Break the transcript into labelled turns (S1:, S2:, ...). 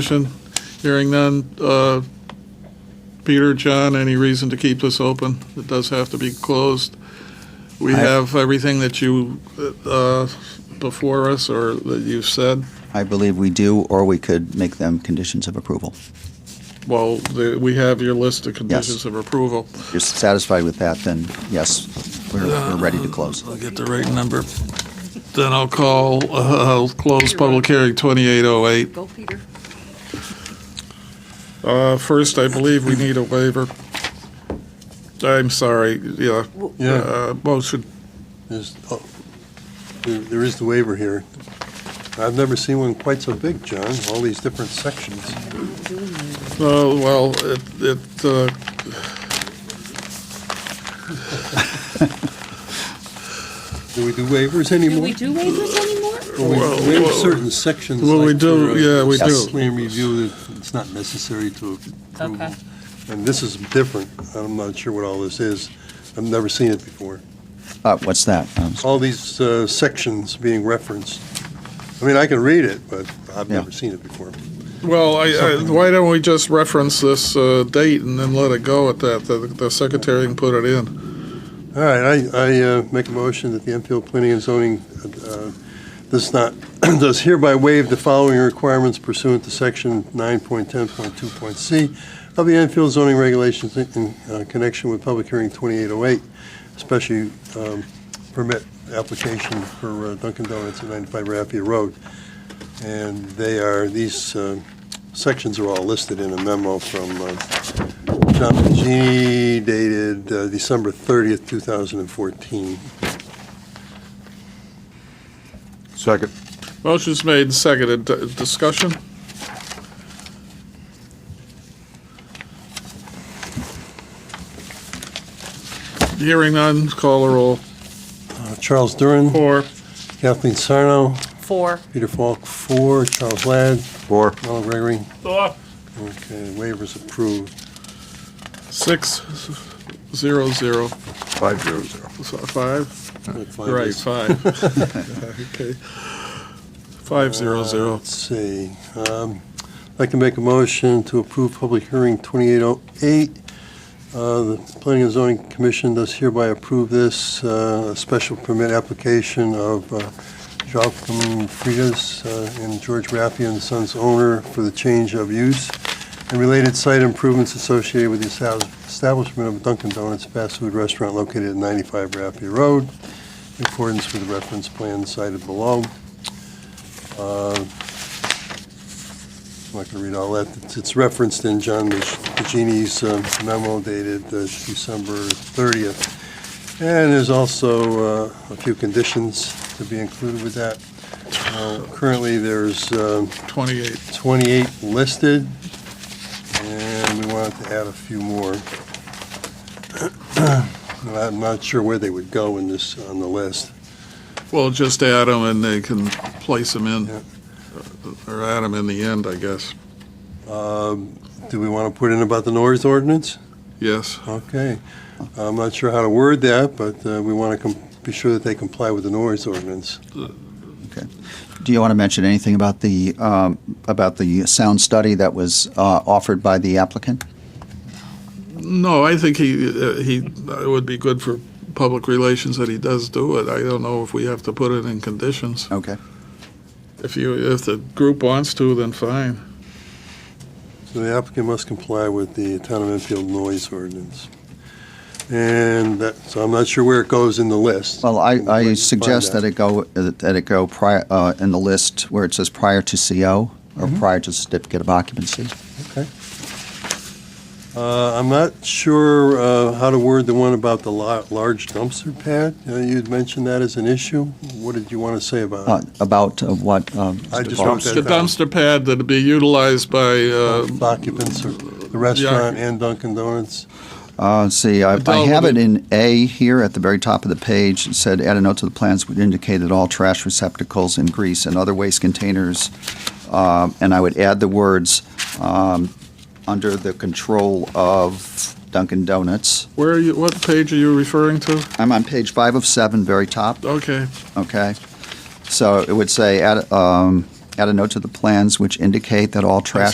S1: Discussion? Hearing none. Uh, Peter, John, any reason to keep this open? It does have to be closed. We
S2: I-
S1: have everything that you, uh, before us, or that you've said.
S2: I believe we do, or we could make them conditions of approval.
S1: Well, the- we have your list of conditions of approval.
S2: If you're satisfied with that, then yes, we're, we're ready to close.
S1: I'll get the right number. Then I'll call, uh, I'll close public hearing 2808.
S3: Go, Peter.
S1: Uh, First, I believe we need a waiver. I'm sorry, yeah.
S4: Yeah,
S1: Uh, Motion
S4: there's, oh, there, there is the waiver here. I've never seen one quite so big, John, all these different sections.
S1: Oh, well, it, it, uh,
S4: Do we do waivers anymore?
S3: do waivers anymore?
S4: Or we
S1: Well,
S4: waive
S1: well-
S4: certain sections?
S1: Well, we
S4: like
S1: do,
S4: for,
S1: yeah,
S4: uh,
S1: we
S2: do.
S4: Plan review, that it's not necessary to
S3: Okay.
S4: approve. And this is different, I'm not sure what all this is, I've never seen it before.
S2: Uh, what's that? Um,
S4: All these uh, sections being referenced. I mean, I can read it, but I've
S2: Yeah.
S4: never seen it before.
S1: well, I, I, why don't we just reference this, uh, date and then let it go at that? The, the secretary can put it in.
S4: All right, I, I uh, make a motion that the Enfield Planning and Zoning uh, does not, does hereby waive the following requirements pursuant to section 9.10.2.c of the Enfield zoning regulations in- in uh, connection with public hearing 2808, special um, permit application for uh, Dunkin' Donuts at 95 Raffia Road. And they are, these uh, sections are all listed in a memo from uh, John Mangini dated uh, December 30th, 2014.
S5: Second.
S1: Motion's made and seconded. D- Discussion? Hearing none, call or roll.
S4: Uh, Charles Duran,
S1: Four.
S4: Kathleen Sarno,
S3: Four.
S4: Peter Falk, four, Charles Ladd,
S5: Four.
S4: Noel Gregory. Okay, waivers approved.
S1: Six, zero, zero,
S5: Five zero zero.
S1: So, five? Right,
S4: Right.
S1: five. Okay. Five, zero, zero.
S4: Uh, Let's see. Um, I'd like to make a motion to approve public hearing 2808. Uh, The Planning and Zoning Commission does hereby approve this uh, special permit application of uh, Joachim Fridas uh, and George Raffia and Sons owner for the change of use and related site improvements associated with the estab- establishment of Dunkin' Donuts fast food restaurant located at 95 Raffia Road in accordance with the reference plan cited below. Uh, I'm not going to read all that. It's- It's referenced in John Magini's um, memo dated uh, December 30th. And there's also uh, a few conditions to be included with that. Uh, Currently, there's um,
S1: 28.
S4: 28 listed, and we wanted to add a few more. And I'm not sure where they would go in this, on the list.
S1: Well, just add them and they can place them in, Uh,
S4: Yeah.
S1: or add them in the end, I guess.
S4: Um, Do we want to put in about the noise ordinance?
S1: Yes.
S4: Okay. I'm not sure how to word that, but uh, we want to be sure that they comply with the noise ordinance.
S2: Do you want to mention anything about the, um, about the sound study that was uh, offered by the applicant?
S1: No, I think he, uh, he, it would be good for public relations that he does do it. I don't know if we have to put it in conditions.
S2: Okay.
S1: If you, if the group wants to, then fine.
S4: So the applicant must comply with the Town of Enfield noise ordinance. And that, so I'm not sure where it goes in the list.
S2: Well, I, I
S4: Find
S2: suggest
S4: out.
S2: that it go, that it go prior, uh, in the list where it says prior to CO or prior to certificate of occupancy.
S4: Uh, I'm not sure uh, how to word the one about the la- large dumpster pad. Uh, You'd mentioned that as an issue. What did you want to say about it?
S2: Uh, About uh, what? um,
S4: I just
S2: Mr. Barr?
S4: wrote that
S1: The
S4: down.
S1: dumpster pad that'd be utilized by, uh,
S4: Occupants of the restaurant and Dunkin' Donuts.
S2: Uh, let's see, I, I
S1: Adele,
S2: have
S1: would
S2: it in A here at the very top of the page. It said, add a note to the plans would indicate that all trash receptacles and grease and other waste containers, um, and I would add the words, um, under the control of Dunkin' Donuts.
S1: where are you, what page are you referring to?
S2: I'm on page five of seven, very top,
S1: Okay.
S2: okay? So it would say, add, um, add a note to the plans which indicate that all trash